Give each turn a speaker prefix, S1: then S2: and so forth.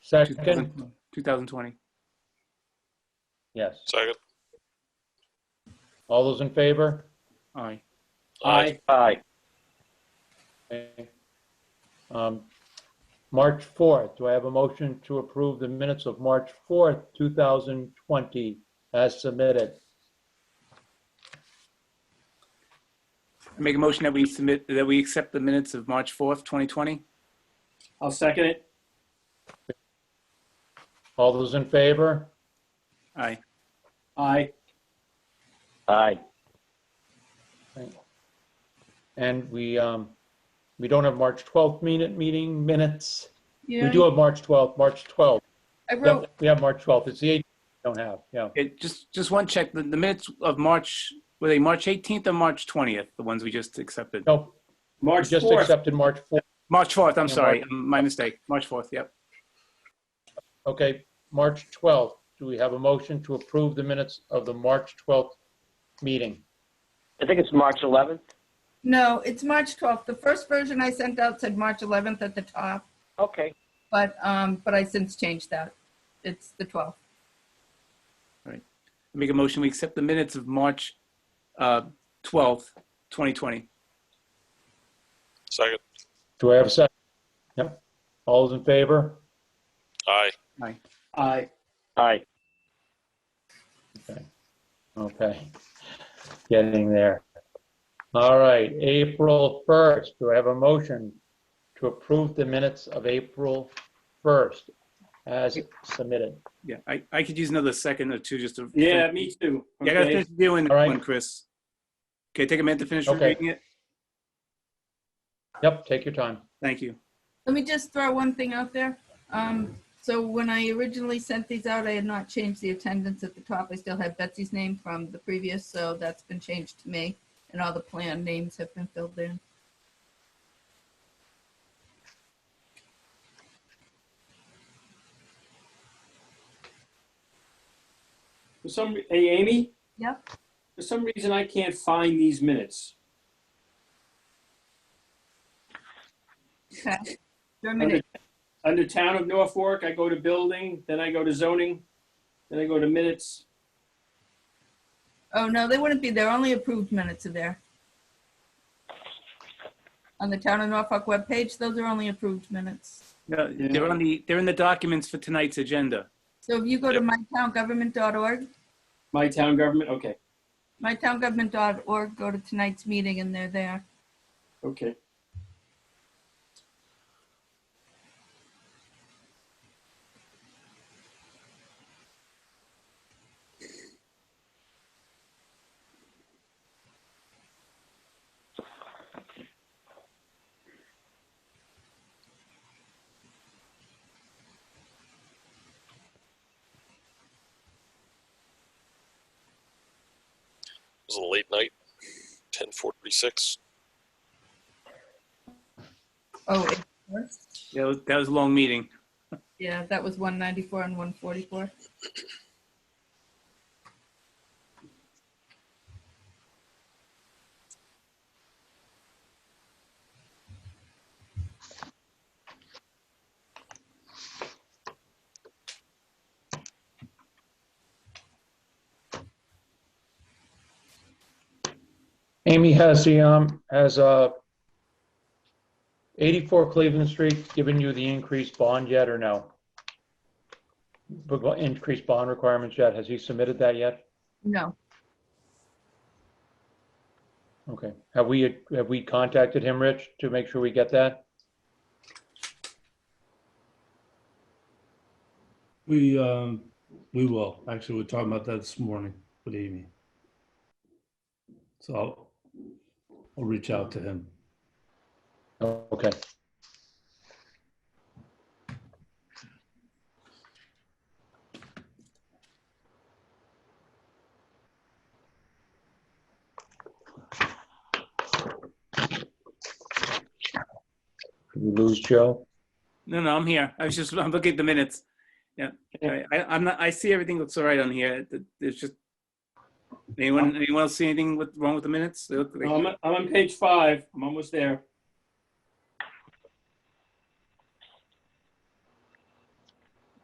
S1: Second,
S2: 2000 2020.
S1: yes.
S3: Second.
S1: All those in favor?
S2: Aye.
S3: Aye.
S1: Aye. Um, March 4th, do I have a motion to approve the minutes of March 4th, 2020 as submitted?
S2: I Make a motion that we submit, that we accept the minutes of March 4th, 2020.
S4: I'll second it.
S1: All those in favor?
S2: Aye.
S4: Aye.
S1: Aye. And we, um, we don't have March 12th minute, meeting minutes. We
S5: Yeah,
S1: do have March 12th, March 12th.
S5: I
S1: Yep,
S5: wrote,
S1: We have March 12th. It's the 8th, we don't have, yeah.
S2: It, just, just one check. The the minutes of March, were they March 18th or March 20th? The ones we just accepted?
S1: No, we
S4: March
S1: just
S4: 4th.
S1: accepted March 4th.
S2: March 4th, I'm
S1: Yeah,
S2: sorry. My mistake. March 4th, yep.
S1: Okay, March 12th. Do we have a motion to approve the minutes of the March 12th meeting?
S6: I think it's March 11th.
S5: no, it's March 12th. The first version I sent out said March 11th at the top,
S6: Okay.
S5: but, um, but I since changed that. It's the 12th.
S2: I Make a motion, we accept the minutes of March uh, 12th, 2020.
S3: Second.
S1: Do I have a second? Yep. All those in favor?
S3: Aye.
S4: Aye.
S6: Aye.
S1: Okay. Getting there. All right, April 1st. Do I have a motion to approve the minutes of April 1st as submitted?
S2: Yeah, I, I could use another second or two just to.
S4: Yeah, me too.
S2: Yeah, I gotta
S4: Okay.
S2: finish reviewing
S1: All right.
S2: one, Chris. Okay, take a minute to finish
S1: Okay.
S2: reading it.
S1: Yep, take your time.
S2: Thank you.
S5: Let me just throw one thing out there. Um, so when I originally sent these out, I had not changed the attendance at the top. I still had Betsy's name from the previous, so that's been changed to me. And all the plan names have been filled in.
S4: For some, re- hey, Amy?
S5: Yep.
S4: For some reason, I can't find these minutes.
S5: Okay.
S4: Under
S5: Germinated.
S4: under Town of Norfolk, I go to Building, then I go to Zoning, then I go to Minutes.
S5: Oh, no, they wouldn't be there. Only approved minutes are there. On the Town of Norfolk webpage, those are only approved minutes.
S2: No,
S4: Yeah.
S2: they're on the, they're in the documents for tonight's agenda.
S5: So if you go to mytowngovernment.org,
S4: My Town Government, okay,
S5: mytowngovernment.org, go to tonight's meeting and they're there.
S4: okay.
S3: It was a late night. 10:46.
S5: Oh, it was?
S2: That was, that was a long meeting.
S5: yeah, that was 194 and 144.
S1: Amy has the, um, has, uh, 84 Cleveland Street given you the increased bond yet or no? The bo- Increased bond requirements yet? Has he submitted that yet?
S5: No,
S1: Okay. Have we, have we contacted him, Rich, to make sure we get that?
S7: We, um, we will. Actually, we we're talking about that this morning with Amy. So I'll, I'll reach out to him.
S1: Oh, Okay. Did we lose Joe?
S2: No, no, I'm here. I was just, I'm looking at the minutes. Yeah, I, I- I'm not, I see everything looks all right on here. It- It's just,
S4: Um,
S2: anyone, anyone else see anything with- wrong with the minutes? They look like-
S4: No, I'm, I'm on page five, I'm almost there.